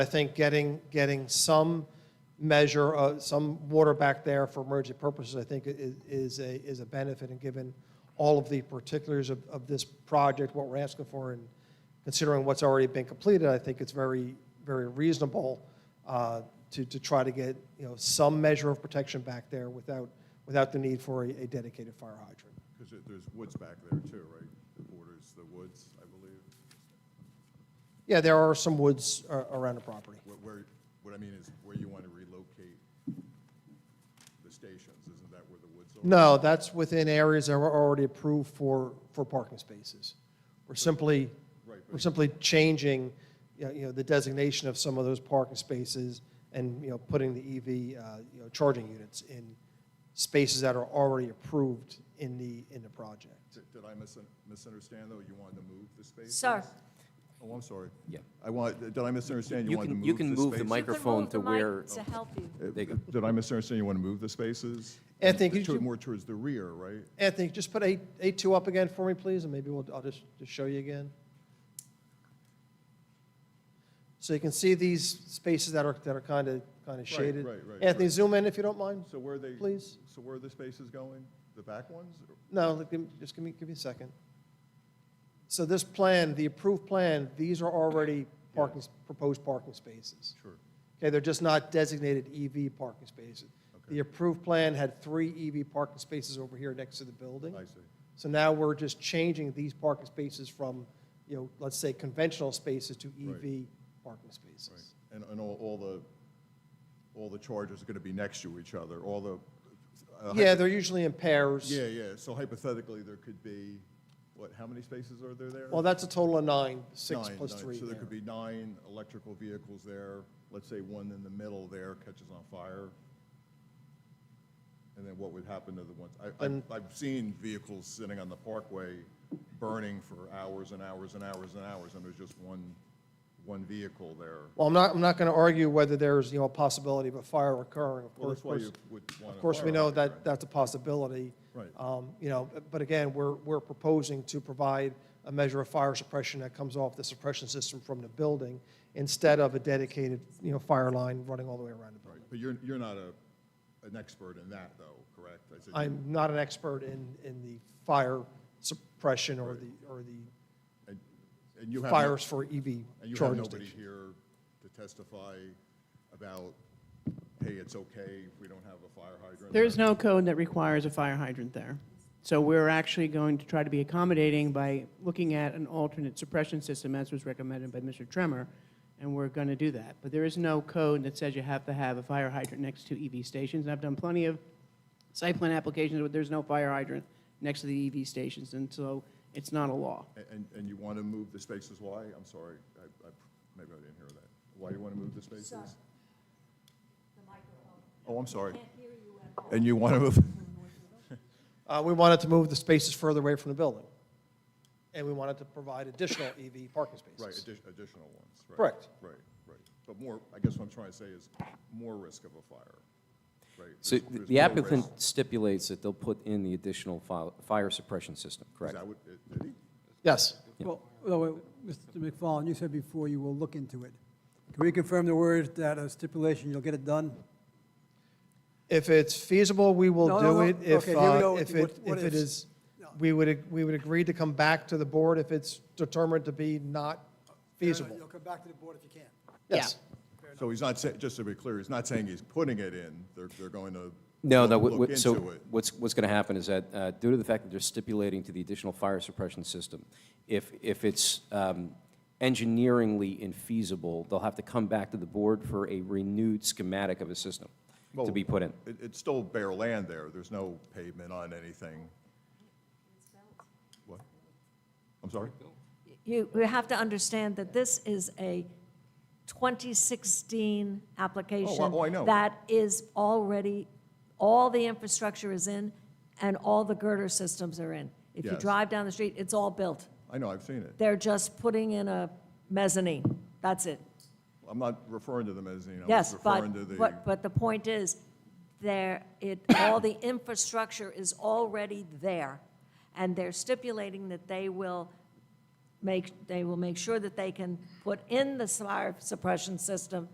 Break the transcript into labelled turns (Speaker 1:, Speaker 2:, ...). Speaker 1: I think getting, getting some measure, uh, some water back there for emergency purposes, I think i- i- is a, is a benefit, and given all of the particulars of, of this project, what we're asking for, and considering what's already been completed, I think it's very, very reasonable uh, to, to try to get, you know, some measure of protection back there without, without the need for a a dedicated fire hydrant.
Speaker 2: Because there's woods back there too, right? It borders the woods, I believe.
Speaker 1: Yeah, there are some woods uh, around the property.
Speaker 2: Where- Where, what I mean is where you want to relocate the stations, isn't that where the woods are?
Speaker 1: No, that's within areas that were already approved for, for parking spaces. We're simply,
Speaker 2: Right, but-
Speaker 1: we're simply changing, you know- you know, the designation of some of those parking spaces and, you know, putting the EV, uh, you know, charging units in spaces that are already approved in the, in the project.
Speaker 2: Did- Did I misun- misunderstand though? You wanted to move the spaces?
Speaker 3: Sir,
Speaker 2: Oh, I'm sorry.
Speaker 4: Yeah.
Speaker 2: I want, did I misunderstand? You
Speaker 4: You
Speaker 2: wanted to
Speaker 4: can-
Speaker 2: move the
Speaker 4: you can move the
Speaker 2: spaces?
Speaker 3: you can
Speaker 4: Microphone
Speaker 3: move the mic
Speaker 4: to where-
Speaker 3: to help you.
Speaker 4: There you go.
Speaker 2: Did I misunderstand you want to move the spaces?
Speaker 1: Anthony, could
Speaker 2: To-
Speaker 1: you-
Speaker 2: More towards the rear, right?
Speaker 1: Anthony, just put A, A2 up again for me, please, and maybe we'll, I'll just, just show you again. So you can see these spaces that are, that are kind of, kind of shaded.
Speaker 2: right, right,
Speaker 1: Anthony,
Speaker 2: right.
Speaker 1: zoom in if you don't mind.
Speaker 2: So where are they?
Speaker 1: Please.
Speaker 2: So where are the spaces going? The back ones? or-
Speaker 1: No, look, give me- just give me, give me a second. So this plan, the approved plan, these are already parking, proposed parking spaces.
Speaker 2: Sure.
Speaker 1: Okay, they're just not designated EV parking spaces. The approved plan had three EV parking spaces over here next to the building.
Speaker 2: I see.
Speaker 1: So now we're just changing these parking spaces from, you know, let's say conventional spaces to EV parking
Speaker 2: Right,
Speaker 1: spaces.
Speaker 2: and, and all, all the, all the charges are gonna be next to each other, all the. uh,
Speaker 1: Yeah,
Speaker 2: hypo-
Speaker 1: they're usually in pairs.
Speaker 2: Yeah, yeah, so hypothetically, there could be, what, how many spaces are there there?
Speaker 1: Well, that's a total of nine, six
Speaker 2: Nine,
Speaker 1: plus
Speaker 2: nine.
Speaker 1: three
Speaker 2: So there
Speaker 1: there.
Speaker 2: could be nine electrical vehicles there, let's say one in the middle there catches on fire. And then what would happen to the ones, I, I've,
Speaker 1: Then-
Speaker 2: I've seen vehicles sitting on the parkway burning for hours and hours and hours and hours, and there's just one, one vehicle there.
Speaker 1: Well, I'm not, I'm not going to argue whether there's, you know, a possibility of a fire occurring. Of
Speaker 2: Well,
Speaker 1: course,
Speaker 2: that's why you
Speaker 1: course-
Speaker 2: would want.
Speaker 1: Of
Speaker 2: a
Speaker 1: course, we
Speaker 2: fire
Speaker 1: know
Speaker 2: hydrant,
Speaker 1: that
Speaker 2: right?
Speaker 1: that's a possibility.
Speaker 2: Right.
Speaker 1: Um, You know, but again, we're, we're proposing to provide a measure of fire suppression that comes off the suppression system from the building instead of a dedicated, you know, fire line running all the way around the building.
Speaker 2: Right, but you're, you're not a, an expert in that, though, correct? I said-
Speaker 1: I'm not an expert in, in the fire suppression or the, or the
Speaker 2: And and you have, no-
Speaker 1: fires for EV
Speaker 2: and you have
Speaker 1: charging
Speaker 2: nobody
Speaker 1: stations.
Speaker 2: here to testify about, hey, it's okay if we don't have a fire hydrant?
Speaker 5: There's no code that requires a fire hydrant there. So we're actually going to try to be accommodating by looking at an alternate suppression system, as was recommended by Mr. Tremor, and we're going to do that. But there is no code that says you have to have a fire hydrant next to EV stations. And I've done plenty of site plan applications where there's no fire hydrant next to the EV stations, and so it's not a law.
Speaker 2: A- And, and you want to move the spaces, why? I'm sorry, I, I, maybe I didn't hear that. Why do you want to move the spaces? Oh, I'm sorry. And you want to move,
Speaker 1: Uh, We wanted to move the spaces further away from the building, and we wanted to provide additional EV parking spaces.
Speaker 2: right, addi- additional ones, right?
Speaker 1: Correct.
Speaker 2: Right, right. But more, I guess what I'm trying to say is more risk of a fire, right?
Speaker 4: So
Speaker 2: There's- there's
Speaker 4: the
Speaker 2: more
Speaker 4: applicant
Speaker 2: risk.
Speaker 4: stipulates that they'll put in the additional fi- fire suppression system,
Speaker 2: Is
Speaker 4: correct?
Speaker 2: that what, did he?
Speaker 1: Yes.
Speaker 6: Well, no, wait, Mr. McFarland, you said before you will look into it. Can we confirm the words that a stipulation, you'll get it done?
Speaker 1: If it's feasible, we will
Speaker 6: No, no,
Speaker 1: do
Speaker 6: no.
Speaker 1: it. If,
Speaker 6: Okay, here we
Speaker 1: uh,
Speaker 6: go.
Speaker 1: if
Speaker 6: What-
Speaker 1: it,
Speaker 6: what
Speaker 1: if it is,
Speaker 6: ifs?
Speaker 1: we would, we would agree to come back to the board if it's determined to be not feasible.
Speaker 6: You'll come back to the board if you can.
Speaker 1: Yes.
Speaker 2: So he's not, sa- just to be clear, he's not saying he's putting it in, they're, they're going to
Speaker 4: No, no,
Speaker 2: look
Speaker 4: what-
Speaker 2: into
Speaker 4: what- so
Speaker 2: it.
Speaker 4: what's, what's going to happen is that uh, due to the fact that they're stipulating to the additional fire suppression system, if, if it's um, engineeringly infeasible, they'll have to come back to the board for a renewed schematic of a system to be put in.
Speaker 2: It, it's still bare land there, there's no pavement on anything. What? I'm sorry?
Speaker 3: You, you have to understand that this is a 2016 application.
Speaker 2: oh, I know.
Speaker 3: That is already, all the infrastructure is in and all the girder systems are in. If you
Speaker 2: Yes.
Speaker 3: drive down the street, it's all built.
Speaker 2: I know, I've seen it.
Speaker 3: They're just putting in a mezzanine. That's it.
Speaker 2: I'm not referring to the mezzanine, I was
Speaker 3: Yes, but,
Speaker 2: referring to the.
Speaker 3: but, but the point is, there, it, all the infrastructure is already there, and they're stipulating that they will make, they will make sure that they can put in the fire suppression system